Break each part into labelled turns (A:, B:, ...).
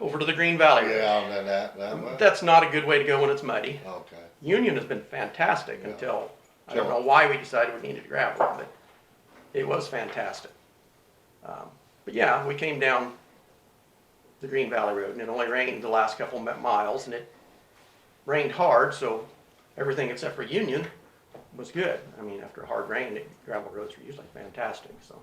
A: over to the Green Valley Road.
B: Oh, Yeah, that, that, that way?
A: Mm,
B: Oh,
A: That's not a good way to go when it's muddy.
B: Okay,
A: Union has been fantastic
B: Yeah.
A: until, I don't
B: Sure.
A: know why we decided we needed gravel, but it was fantastic. Um, But yeah, we came down the Green Valley Road and it only rained the last couple mi- miles and it rained hard, so everything except for Union was good. I mean, after a hard rain, it- gravel roads are usually fantastic, so.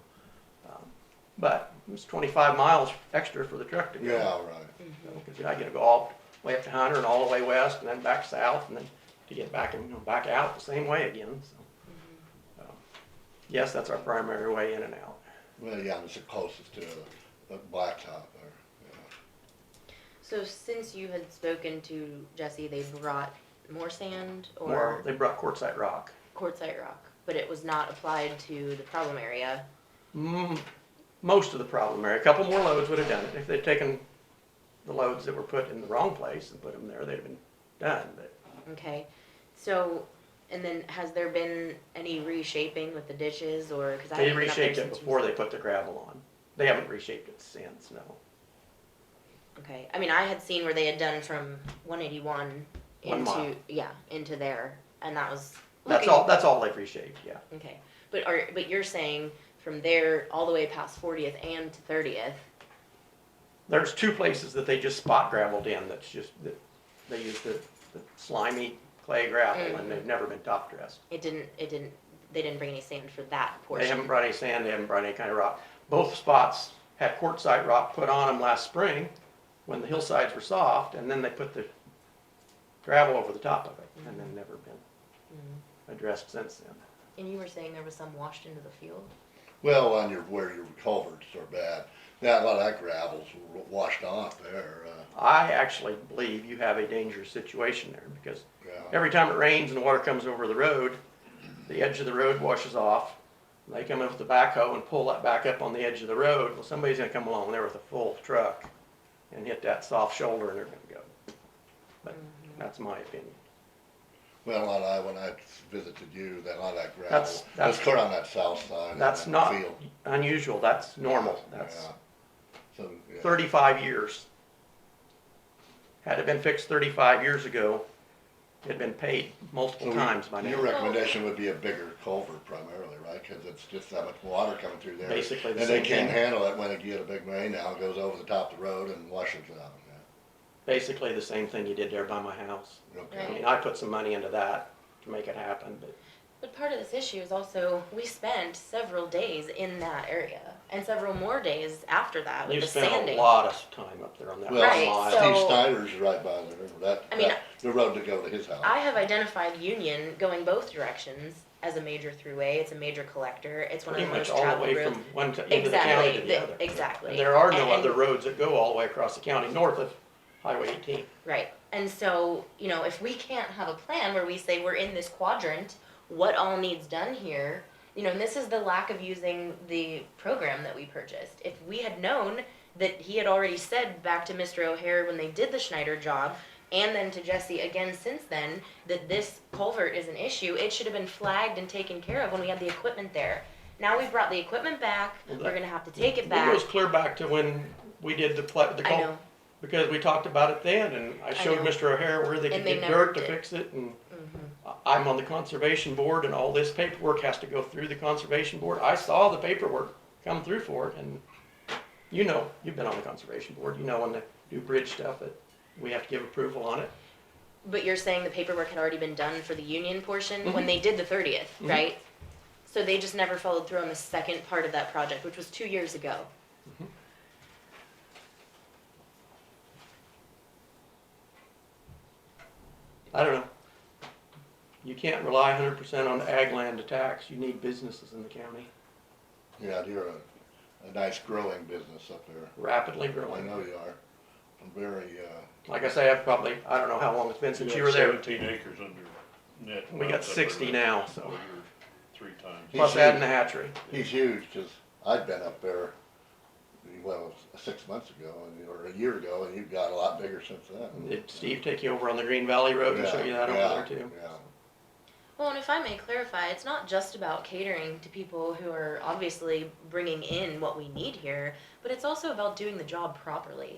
A: um, But it was twenty-five miles extra for the truck to go.
B: yeah, right,
A: Because I gotta go all the way up to Hunter and all the way west and then back south and then to get back and, you know, back out the same way again, so. Um, Yes, that's our primary way in and out.
B: well, yeah, it's the closest to the blacktop there,
C: So since you had spoken to Jesse, they brought more sand
A: Or
C: or
A: they brought quartzite rock.
C: quartzite rock, but it was not applied to the problem area.
A: Mm, most of the problem area, a couple more loads would have done it. If they'd taken the loads that were put in the wrong place and put them there, they'd have been done, but
C: Okay, so, and then has there been any reshaping with the ditches or, cause I
A: they
C: haven't been up there
A: reshaped it
C: since you-
A: before they put the gravel on. They haven't reshaped it since, no.
C: Okay, I mean, I had seen where they had done from one eighty-one
A: One mile.
C: into, yeah, into there, and that was.
A: That's
C: looking-
A: all, that's all they've reshaped, yeah.
C: Okay, but are, but you're saying from there all the way past Fortieth and to Thirtieth,
A: There's two places that they just spot gravelled in, that's just, that, they use the, the slimy clay gravel, and they've never been top dressed.
C: it didn't, it didn't, they didn't bring any sand for that
A: They haven't
C: portion?
A: brought any sand, they haven't brought any kind of rock. Both spots had quartzite rock put on them last spring, when the hillsides were soft, and then they put the gravel over the top of it, and then never been
C: Mm.
A: addressed since then.
C: And you were saying there was some washed into the field?
B: Well, on your, where your culverts are bad, that, a lot of that gravel's wa- washed off there, uh,
A: I actually believe you have a dangerous situation there, because
B: yeah,
A: Every time it rains and the water comes over the road, the edge of the road washes off. They come in with the backhoe and pull that back up on the edge of the road. Well, somebody's gonna come along there with a full truck and hit that soft shoulder and they're gonna go. But that's my opinion.
B: well, a lot of, that- when I visited you, that, a lot of that
A: That's-
B: gravel,
A: that's-
B: was clear on that south side. of
A: That's
B: that
A: not
B: field.
A: unusual, that's normal, that's
B: Yeah. So, yeah.
A: thirty-five years. Had it been fixed thirty-five years ago, it'd been paid
B: So
A: multiple
B: we-
A: times by
B: Your
A: now.
B: recommendation would be a bigger culvert primarily, right? Cause it's just that much water coming through there.
A: Basically the
B: And they
A: same
B: can't
A: thing.
B: handle it when it get a big rain now, it goes over the top of the road and washes it out, yeah,
A: Basically the same thing you did there by my house. I
B: okay.
A: mean, I put some money into that to make it happen, but
C: Uh, But part of this issue is also, we spent several days in that area, and several more days after that with
A: We've
C: the
A: spent a
C: sanding.
A: lot of time up there on that
B: Well,
C: Right,
A: mile.
C: so-
B: Steve Snyder's right by there, that,
C: I mean,
B: that, the road to go to his house.
C: I have identified Union going both directions as a major throughway, it's a major collector, it's one of
A: Pretty
C: the most
A: much all the
C: traveled
A: way
C: roads.
A: from one to, end of the county
C: Exactly,
A: to
C: the-
A: the other.
C: exactly.
A: And there are no
C: And- and-
A: other roads that go all the way across the county north of Highway eighteen.
C: Right, and so, you know, if we can't have a plan where we say we're in this quadrant, what all needs done here? You know, and this is the lack of using the program that we purchased. If we had known that he had already said back to Mr. O'Hare when they did the Schneider job, and then to Jesse again since then, that this culvert is an issue, it should have been flagged and taken care of when we had the equipment there. Now we've brought the equipment back,
A: Well, that-
C: we're gonna have to take it
A: It
C: back.
A: goes clear back to when we did the pla- the
C: I
A: cul,
C: know,
A: because we talked about it then and I showed
C: know.
A: Mr. O'Hare where they could
C: And they
A: get
C: never
A: dirt to
C: did.
A: fix it and
C: Mhm.
A: I- I'm on the conservation board and all this paperwork has to go through the conservation board. I saw the paperwork come through for it and you know, you've been on the conservation board, you know, when they do bridge stuff that we have to give approval on it.
C: But you're saying the paperwork had already been done for the union portion when they did the 30th, right? So they just never followed through on the second part of that project, which was two years ago.
A: I don't know. You can't rely hundred percent on ag land to tax. You need businesses in the county
B: Yeah, you're a, a nice growing business up there.
A: rapidly
B: I
A: growing.
B: know you are. I'm very, uh,
A: Like I say, I've probably, I don't know how long it's been since you were there.
D: Seventeen acres under net.
A: We got
D: rounds up
A: sixty
D: there.
A: now, so
D: Well, you're Three times.
A: plus adding the hatchery.
B: he's huge, cause I'd been up there, well, six months ago, and- or a year ago, and you've got a lot bigger since then.
A: Did Steve take you over on the Green Valley Road and show you that
B: Yeah,
A: over there too?
B: Yeah,
C: Well, and if I may clarify, it's not just about catering to people who are obviously bringing in what we need here, but it's also about doing the job properly.